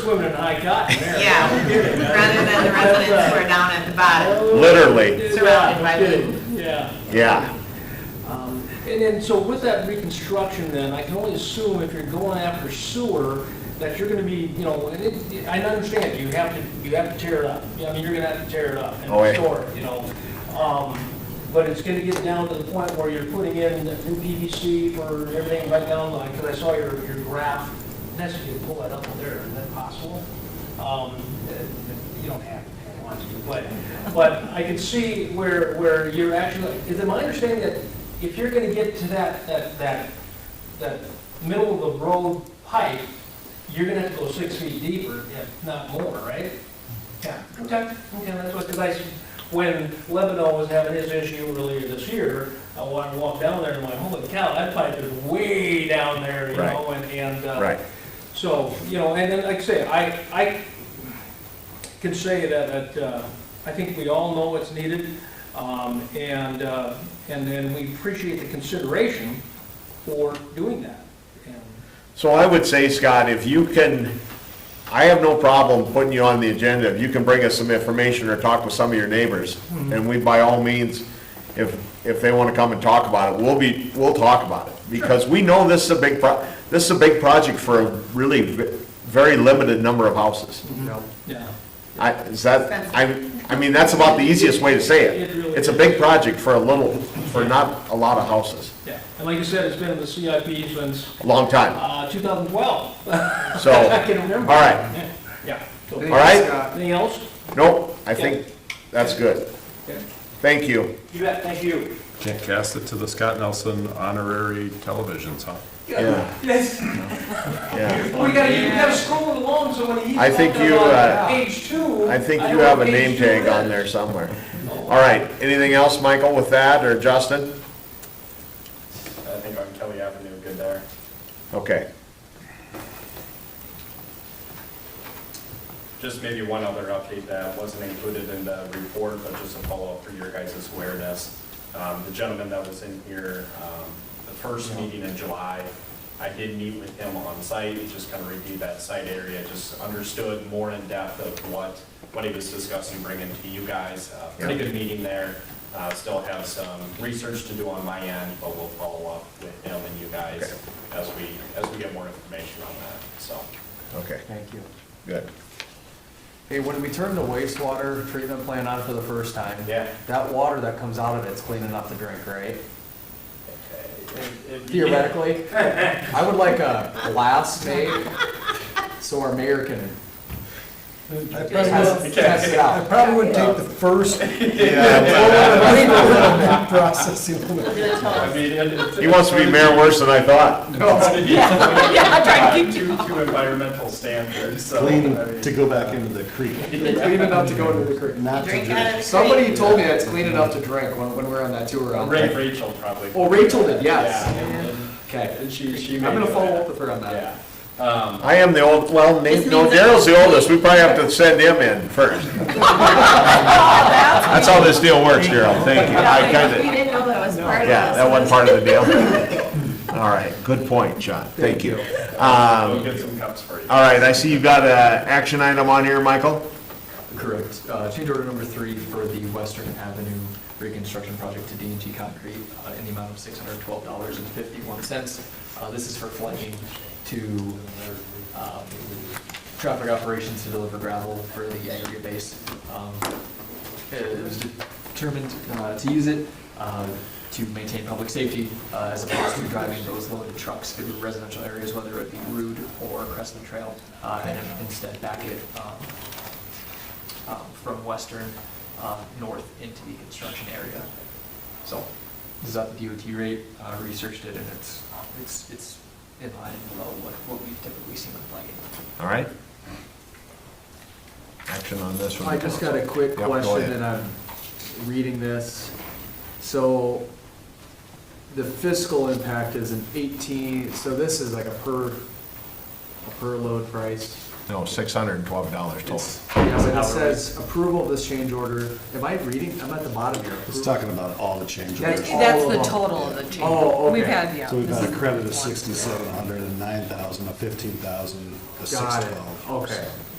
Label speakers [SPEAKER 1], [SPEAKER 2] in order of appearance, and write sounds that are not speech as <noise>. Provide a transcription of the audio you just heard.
[SPEAKER 1] swimming in high cotton there.
[SPEAKER 2] Yeah, rather than the residents who are down at the bottom.
[SPEAKER 1] Yeah,
[SPEAKER 2] It's
[SPEAKER 1] I
[SPEAKER 2] a surrounded by
[SPEAKER 1] did,
[SPEAKER 2] woods.
[SPEAKER 1] Yeah.
[SPEAKER 3] yeah.
[SPEAKER 1] Um, And then, so with that reconstruction then, I can only assume if you're going after sewer, that you're gonna be, you know, and it, I understand, you have to, you have to tear it up. Yeah, I mean, you're gonna have to tear it up and
[SPEAKER 3] Oh, yeah.
[SPEAKER 1] restore it, you know? Um, But it's gonna get down to the point where you're putting in the new PVC for everything right down, like, because I saw your, your graph. That's if you pull that up there, is that possible? Um, uh, You don't have to, if you want to, but, but I can see where, where you're actually, is it my understanding that if you're gonna get to that, that, that, that middle of the road pipe, you're gonna have to go six feet deeper, if not more, right? Yeah, okay, okay, that's what, because I, s- when Lebanon was having his issue earlier this year, I wa- walked down there and went, holy cow, that pipe is way down there, you
[SPEAKER 3] Right.
[SPEAKER 1] know, and, and. uh,
[SPEAKER 3] Right.
[SPEAKER 1] so, you know, and then, like I say, I, I can say that, that, uh, I think we all know it's needed, um, and, uh, and then we appreciate the consideration for doing that. And
[SPEAKER 3] So I would say, Scott, if you can, I have no problem putting you on the agenda. If you can bring us some information or talk with some of your neighbors,
[SPEAKER 1] Hmm.
[SPEAKER 3] and we, by all means, if, if they want to come and talk about it, we'll be, we'll talk about it. Because we know this is a big, pro this is a big project for a really ve- very limited number of houses.
[SPEAKER 1] Yeah,
[SPEAKER 3] I, is that, I, I mean, that's about the easiest way to say it.
[SPEAKER 1] It really
[SPEAKER 3] It's a
[SPEAKER 1] is.
[SPEAKER 3] big project for a little, for not a lot of houses,
[SPEAKER 1] yeah, and like I said, it's been in the CIP since,
[SPEAKER 3] a long time,
[SPEAKER 1] uh, 2012,
[SPEAKER 3] so,
[SPEAKER 1] I can
[SPEAKER 3] all
[SPEAKER 1] remember.
[SPEAKER 3] right.
[SPEAKER 1] Yeah. So,
[SPEAKER 3] All right.
[SPEAKER 1] Anything else?
[SPEAKER 3] Nope, I think that's good.
[SPEAKER 1] Okay.
[SPEAKER 3] Thank you.
[SPEAKER 1] You bet, thank you.
[SPEAKER 4] Can't cast it to the Scott Nelson honorary televisions, huh?
[SPEAKER 3] Yeah,
[SPEAKER 1] Yes.
[SPEAKER 3] yeah.
[SPEAKER 1] We gotta, you gotta scroll along, so when he's
[SPEAKER 3] I think
[SPEAKER 1] on
[SPEAKER 3] you, uh,
[SPEAKER 1] page two.
[SPEAKER 3] I think you
[SPEAKER 1] know
[SPEAKER 3] have a
[SPEAKER 1] what
[SPEAKER 3] name
[SPEAKER 1] page two
[SPEAKER 3] tag on
[SPEAKER 1] is.
[SPEAKER 3] there somewhere. All right, anything else, Michael, with that, or Justin?
[SPEAKER 5] I think on Kelly Avenue, good there.
[SPEAKER 3] Okay,
[SPEAKER 5] Just maybe one other update that wasn't included in the report, but just a follow-up for your guys' awareness. Um, The gentleman that was in here, um, the first meeting in July, I did meet with him on site, just kind of reviewed that site area, just understood more in depth of what, what he was discussing bringing to you guys. Uh, Pretty good meeting there. Uh, Still have some research to do on my end, but we'll follow up with him and you guys as we, as we get more information on that, so.
[SPEAKER 3] okay,
[SPEAKER 6] Thank you.
[SPEAKER 3] good.
[SPEAKER 6] Hey, when we turned the wastewater treatment plant on for the first time.
[SPEAKER 5] Yeah.
[SPEAKER 6] That water that comes out of it's clean enough to drink, right?
[SPEAKER 5] If- if you-
[SPEAKER 6] Theoretically. I would like a glass made so our mayor can
[SPEAKER 7] I
[SPEAKER 6] test
[SPEAKER 7] probably-
[SPEAKER 6] test it
[SPEAKER 7] I
[SPEAKER 6] out.
[SPEAKER 7] probably would take the
[SPEAKER 6] <laughs>
[SPEAKER 7] first process.
[SPEAKER 5] I mean, it- it's-
[SPEAKER 3] He wants to be mayor worse than I thought.
[SPEAKER 2] <laughs> Yeah, I'm trying
[SPEAKER 5] Two, two environmental standards, so. I mean,
[SPEAKER 7] Clean to go back into the creek.
[SPEAKER 6] Clean enough to go into the creek.
[SPEAKER 7] Not to
[SPEAKER 2] Drink
[SPEAKER 7] drink.
[SPEAKER 2] out of the
[SPEAKER 6] Somebody
[SPEAKER 2] creek.
[SPEAKER 6] told me that it's clean enough to drink when, when we were on that tour. out
[SPEAKER 5] Ra-
[SPEAKER 6] there.
[SPEAKER 5] Rachel probably.
[SPEAKER 6] Oh, Rachel did,
[SPEAKER 5] Yeah,
[SPEAKER 6] yes.
[SPEAKER 5] and- and-
[SPEAKER 6] Okay.
[SPEAKER 5] And she, she.
[SPEAKER 6] I'm
[SPEAKER 5] made
[SPEAKER 6] gonna
[SPEAKER 5] it.
[SPEAKER 6] follow up with her on that.
[SPEAKER 5] Yeah. Um,
[SPEAKER 3] I am the old, well, Nate,
[SPEAKER 2] This
[SPEAKER 3] no,
[SPEAKER 2] means that-
[SPEAKER 3] Daryl's the oldest, we probably have to send him in
[SPEAKER 2] <laughs>
[SPEAKER 3] first. That's how this deal works, Daryl, thank you. I kinda.
[SPEAKER 2] We didn't know that was part of
[SPEAKER 3] Yeah,
[SPEAKER 2] this.
[SPEAKER 3] that wasn't part of the deal. <laughs> All right, good point, John, thank you.
[SPEAKER 5] we'll
[SPEAKER 3] Um,
[SPEAKER 5] get some cups for you.
[SPEAKER 3] All right, I see you've got an action item on here, Michael?
[SPEAKER 6] Correct. Uh, Change order number three for the Western Avenue reconstruction project to d and T Concrete uh, in the amount of $612.51. Uh, This is for flagging to um, traffic operations to deliver gravel for the aggregate base. Um, It was determined uh, to use it uh, to maintain public safety uh, as opposed to driving those loaded trucks through residential areas, whether it be Route or Crescent Trail, uh, and instead back it um, um, from western um, north into the construction area. So this is at the DOT rate, uh, researched it, and it's, it's, it's in line and below what, what we've typically seen with flagging.
[SPEAKER 3] All right? Action on this one.
[SPEAKER 8] I just got a quick
[SPEAKER 3] Yep, go ahead.
[SPEAKER 8] question, and I'm reading this. So the fiscal impact is an eighteen, so this is like a per, a per load price.
[SPEAKER 3] No, six hundred and twelve dollars total.
[SPEAKER 6] It's- Yeah, but it says approval of this change order. Am I reading? I'm at the bottom here.
[SPEAKER 7] It's talking about all the change
[SPEAKER 6] That's-
[SPEAKER 7] orders.
[SPEAKER 6] all
[SPEAKER 2] That's
[SPEAKER 6] of
[SPEAKER 2] the
[SPEAKER 6] them.
[SPEAKER 2] total of the change.
[SPEAKER 6] Oh, okay.
[SPEAKER 2] We've had, yeah.
[SPEAKER 7] So we've
[SPEAKER 2] this
[SPEAKER 7] got a
[SPEAKER 2] is
[SPEAKER 7] credit
[SPEAKER 2] one.
[SPEAKER 7] of sixty-seven hundred, a nine thousand, a fifteen thousand, a six
[SPEAKER 6] Got it.
[SPEAKER 7] twelve.
[SPEAKER 6] Okay.